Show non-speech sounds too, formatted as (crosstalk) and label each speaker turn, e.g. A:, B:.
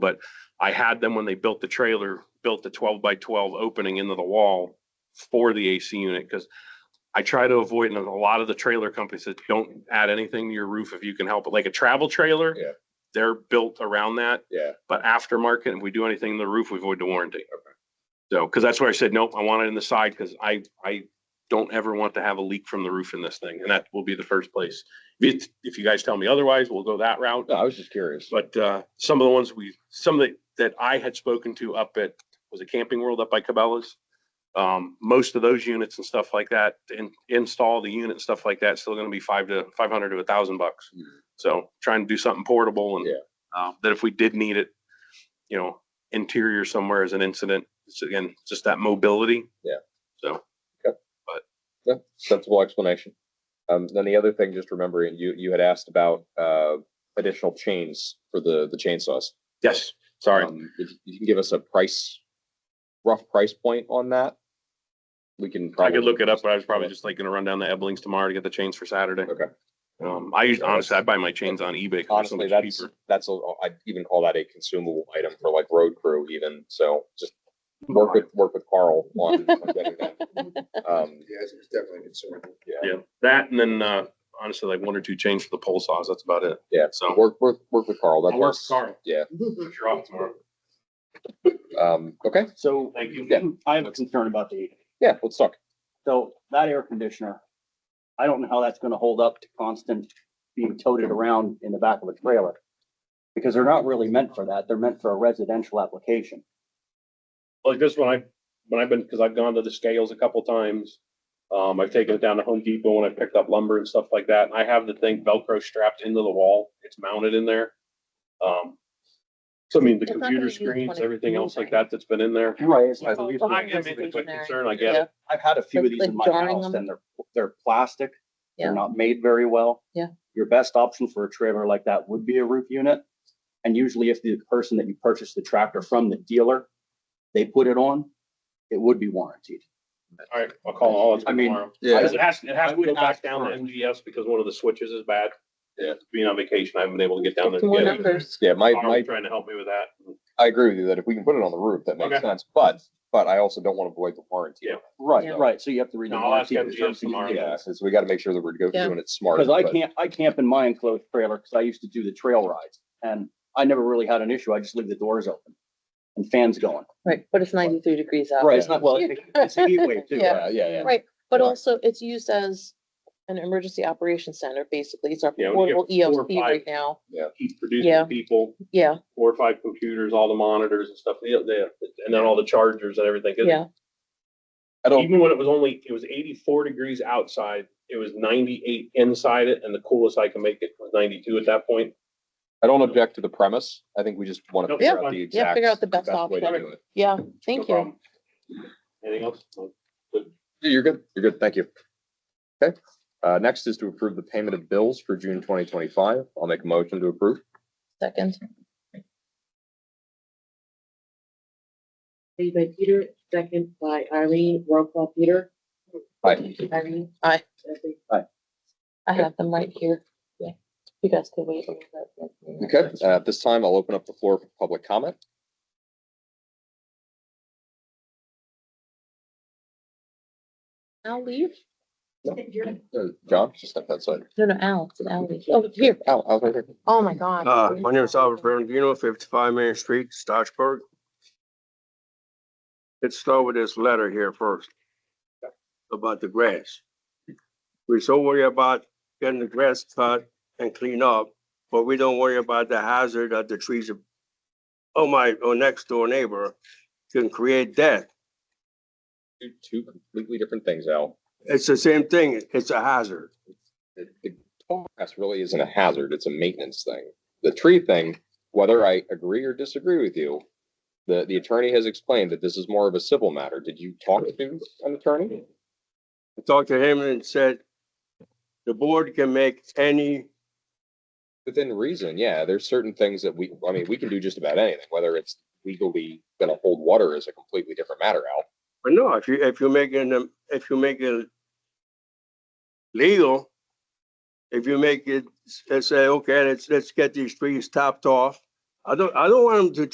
A: But I had them when they built the trailer, built the twelve by twelve opening into the wall for the AC unit, because I try to avoid, and a lot of the trailer companies that don't add anything to your roof if you can help it, like a travel trailer.
B: Yeah.
A: They're built around that,
B: Yeah,
A: but aftermarket, if we do anything to the roof, we void the warranty. So, because that's where I said, nope, I want it in the side, because I, I don't ever want to have a leak from the roof in this thing, and that will be the first place. If, it's- if you guys tell me otherwise, we'll go that route.
B: no, I was just curious.
A: But uh, some of the ones we, some of the, that I had spoken to up at, was it Camping World up by Cabela's? Um, most of those units and stuff like that, to in, install the unit and stuff like that, still gonna be five to, five hundred to a thousand bucks.
B: Mhm.
A: So trying to do something portable and
B: Yeah.
A: uh, that if we did need it, you know, interior somewhere as an incident, it's again, just that mobility.
B: Yeah.
A: So,
B: Yeah, Sensible explanation. Um, then the other thing, just remembering, you, you had asked about, uh, additional chains for the, the chainsaws.
A: yes, sorry.
B: Um, If you can give us a price, rough price point on that, we can.
A: I
B: probably
A: could look it up, but I was probably just like gonna run down the Eblings tomorrow to get the chains for Saturday.
B: Okay.
A: Um, I usually, honestly, I buy my chains on eBay. 'cause they're so
B: Honestly,
A: much
B: that's,
A: cheaper.
B: that's, a I'd even call that a consumable item for like road crew even, so just work with, work with Carl
A: (laughs)
B: on on getting that. Um,
C: Yes, it's definitely consumable.
B: yeah,
A: Yeah, that and then, uh, honestly, like one or two chains for the pole saws, that's about it.
B: Yeah.
A: So.
B: work, work, work with Carl, that's. Yeah,
A: You're off tomorrow.
B: um, okay,
D: So
A: Thank you.
B: Yeah.
D: I have a concern about the,
B: yeah, let's talk.
D: so that air conditioner, I don't know how that's gonna hold up to constant being toted around in the back of a trailer. Because they're not really meant for that. They're meant for a residential application.
A: Like this one, I, when I've been, cause I've gone to the scales a couple times. Um, I've taken it down to Home Depot when I picked up lumber and stuff like that. and I have the thing Velcro strapped into the wall. It's mounted in there. Um, so I mean, the
E: It's not
A: computer
E: gonna use
A: screens,
E: 20
A: everything else like that that's been in there.
D: Right. it's
E: Yeah.
D: like-
A: I mean, it's a concern, I get it.
E: Yeah.
D: I've had a few of these in my
E: Like jarring
D: house
E: them.
D: and they're, they're plastic. They're
E: Yeah.
D: not made very well.
E: Yeah.
D: Your best option for a trailer like that would be a roof unit. And usually if the person that you purchased the tractor from, the dealer, they put it on, it would be warranted.
A: All right, I'll call all of
D: I
A: them
D: mean,
A: tomorrow.
B: yeah.
A: Because It has, it has
D: I
A: to go
D: would
A: back
D: ask
A: down
D: for
A: to
D: it.
A: MGS because one of the switches is bad.
B: Yeah.
A: Being on vacation, I haven't been able to get down there. to
E: More
A: get it.
E: numbers.
B: Yeah, my, my
A: Tomorrow's Trying to help me with that.
B: I agree with you that if we can put it on the roof, that makes
A: Okay.
B: sense, but, but I also don't want to void the warranty.
A: Yeah.
D: Right,
E: Yeah.
D: right. So you have to read. the
A: No, I'll ask
D: warranty
A: MGM
D: terms and
A: tomorrow.
D: conditions.
B: Yeah, so we gotta make sure that we're go-
E: Yeah.
B: doing it smart.
D: Because I
B: but-
D: can't, I camp in my enclosed trailer because I used to do the trail rides and I never really had an issue. I just leave the doors open and fans going.
E: Right, but it's ninety-three degrees out.
D: Right, it's not, well, it's a heat wave too.
B: Yeah,
E: Yeah.
B: yeah, yeah.
E: Right, but
B: Yeah.
E: also it's used as an emergency operations center, basically. It's our
A: Yeah, when you
E: portable
A: get four or
E: EOC right now.
A: Keep
E: Yeah.
A: producing people,
E: Yeah,
A: four or five computers, all the monitors and stuff, yeah, yeah, and then all the chargers and everything. 'Cause
E: yeah,
B: I don't,
A: Even when it was only, it was eighty-four degrees outside, it was ninety-eight inside it, and the coolest I can make it was ninety-two at that point.
B: I don't object to the premise. I think we just want to
A: Nope.
B: figure
A: Yeah.
B: out the
A: Yeah,
B: exact.
E: figure out the best
B: way to
E: option.
B: do it.
E: yeah.
A: No
E: Thank you.
A: problem. Anything else? No.
B: You're good, you're good, thank you. Okay, uh, next is to approve the payment of bills for June twenty twenty-five. I'll make a motion to approve.
E: Second,
F: Made by Peter, second by Irene, roll call Peter.
B: Aye.
F: Irene.
E: Aye.
F: Jesse.
E: I have them right here. Yeah, You guys could wait a little bit.
B: Okay, uh, at this time, I'll open up the floor for public comment.
E: I'll leave.
B: Uh, John, just step outside.
E: No, no, Al, it's an Al leave. Oh, here.
B: Al, Al, right here.
E: Oh, my God.
G: Uh, my name is Albert Ferrandino, fifty-five Main Street, Stocksburg. Let's start with this letter here first. About the grass. We so worry about getting the grass cut and clean up, but we don't worry about the hazard that the trees of oh my, or next door neighbor can create death.
B: Two- Two completely different things, Al.
G: It's the same thing. It's a hazard.
B: the, the tall grass really isn't a hazard, it's a maintenance thing. The tree thing, whether I agree or disagree with you, the, the attorney has explained that this is more of a civil matter. Did you talk to an attorney?
G: I talked to him and said, the board can make any
B: Within reason, yeah, there's certain things that we, I mean, we can do just about anything, whether it's legally gonna hold water is a completely different matter, Al.
G: But no, if you, if you make it, if you make it legal, if you make it, s- say, okay, let's, let's get these trees topped off. I don't, I don't want them to